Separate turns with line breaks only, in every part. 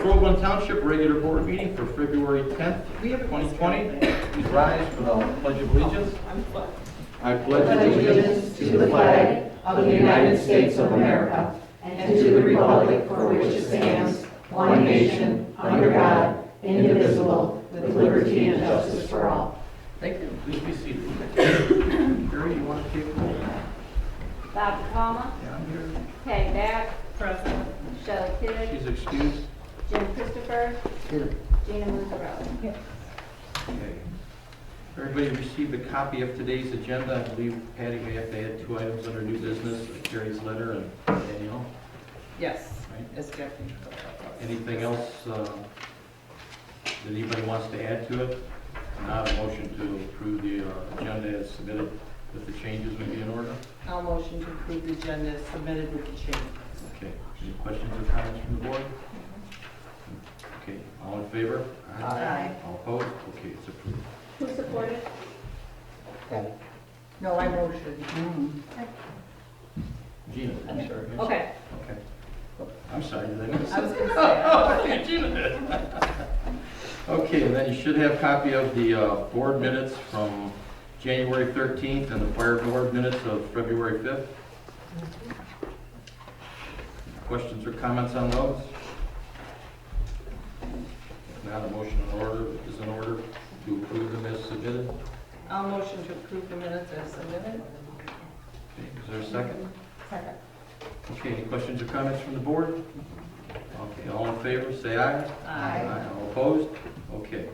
Groveland Township Regular Board Meeting for February 10th, 2020. Please rise for the Pledge of Allegiance. I pledge
allegiance to the flag of the United States of America and to the republic for which it stands, one nation, under God, indivisible, with liberty and justice for all.
Thank you. Please be seated. Jerry, you want to take roll?
Bob DiPalma,
Down here.
Patty Back. Present. Michelle Kidd,
She's excused.
Jim Christopher,
Here.
Gina Musarelli.
Okay. Everybody received a copy of today's agenda. I believe Patty may have had two items under new business, Jerry's letter and Danielle.
Yes, it's Jeffy.
Anything else uh, that anybody wants to add to it? Not a motion to approve the uh, agenda as submitted with the changes would be in order?
I'll motion to approve the agenda as submitted with the change.
Okay, any questions or comments from the board? Okay, all in favor?
Aye.
All opposed? Okay, it's approved.
Who supported?
No, I motion.
Gina, I'm sorry.
Okay.
Okay. I'm sorry, did I miss?
Oh. I was gonna say,
Okay, and then you should have a copy of the uh, board minutes from January 13th and the fire board minutes of February 5th. Questions or comments on those? If not, a motion in order, is in order to approve them as submitted.
I'll motion to approve the minutes as submitted.
Okay, Is there a second? Second. Okay, any questions or comments from the board? Okay, all in favor, say aye.
Aye.
All opposed? Okay.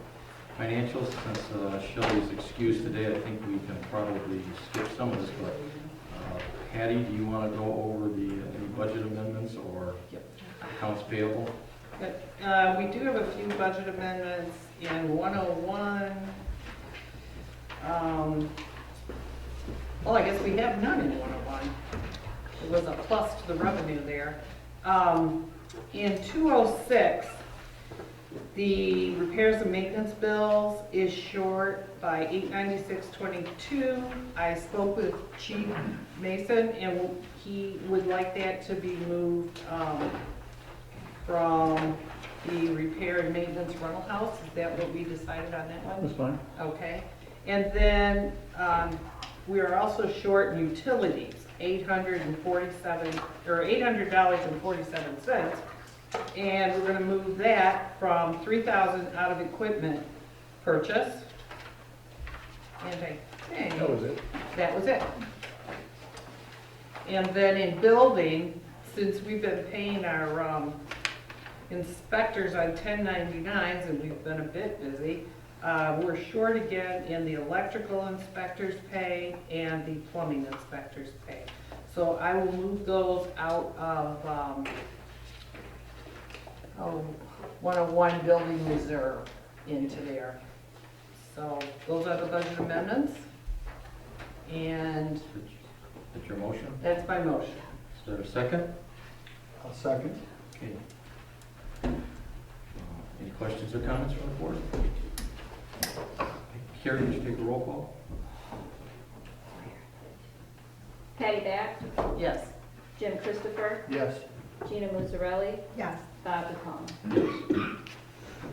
Financials, since uh, Shelley's excused today, I think we can probably skip some of this, but uh, Patty, do you want to go over the, uh, any budget amendments or
Yep.
accounts payable?
But, uh, we do have a few budget amendments in 101. Um, Well, I guess we have none in 101. It was a plus to the revenue there. Um, In 206, the repairs and maintenance bills is short by 896.22. I spoke with Chief Mason, and he would like that to be moved um, from the repair and maintenance rental house. Is that what we decided on that one?
That's fine.
Okay. And then um, we are also short in utilities, 847, or $800.47. And we're going to move that from 3,000 out of equipment purchase. And I think.
That was it.
That was it. And then in building, since we've been paying our um, inspectors on 1099s and we've been a bit busy, uh, we're short again in the electrical inspector's pay and the plumbing inspector's pay. So I will move those out of um, oh, 101 building reserve into there. So those are the budget amendments. And
That's your motion?
that's my motion.
Is there a second?
I'll second.
Okay. Uh, Any questions or comments from the board? Carrie, would you take a roll call?
Patty Back,
Yes.
Jim Christopher,
Yes.
Gina Musarelli,
Yes.
Bob DiPalma.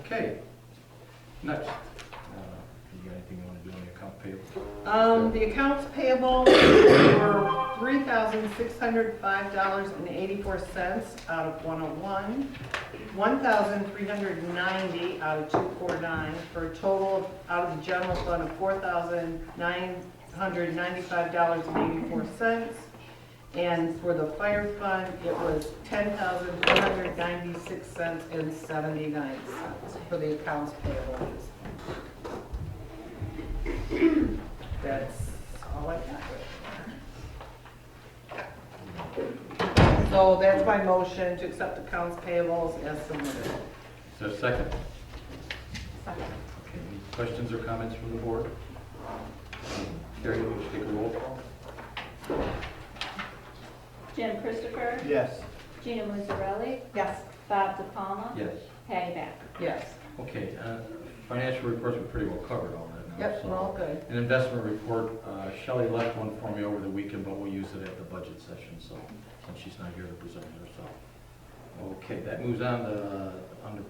Okay. Next. Uh, You got anything you want to do on the account payable?
Um, the accounts payable were three thousand six hundred five dollars and eighty-four cents out of one oh one, one thousand three hundred ninety out of two four nine, for a total of- out of the general fund of four thousand nine hundred ninety-five dollars and eighty-four cents. And for the fire fund, it was ten thousand four hundred ninety-six cents and seventy-nine cents for the accounts payable. That's all I got. So that's my motion to accept accounts payables as submitted.
Is there a second? Okay, any questions or comments from the board? Carrie, would you take a roll call?
Jim Christopher,
Yes.
Gina Musarelli,
Yes.
Bob DiPalma,
Yes.
Patty Back.
Yes.
Okay, uh, financial reports, we pretty well covered all that now.
Yep,
so-
we're all good.
An investment report, uh, Shelley left one for me over the weekend, but we'll use it at the budget session, so, and she's not here to present herself. Okay, that moves on to, uh, under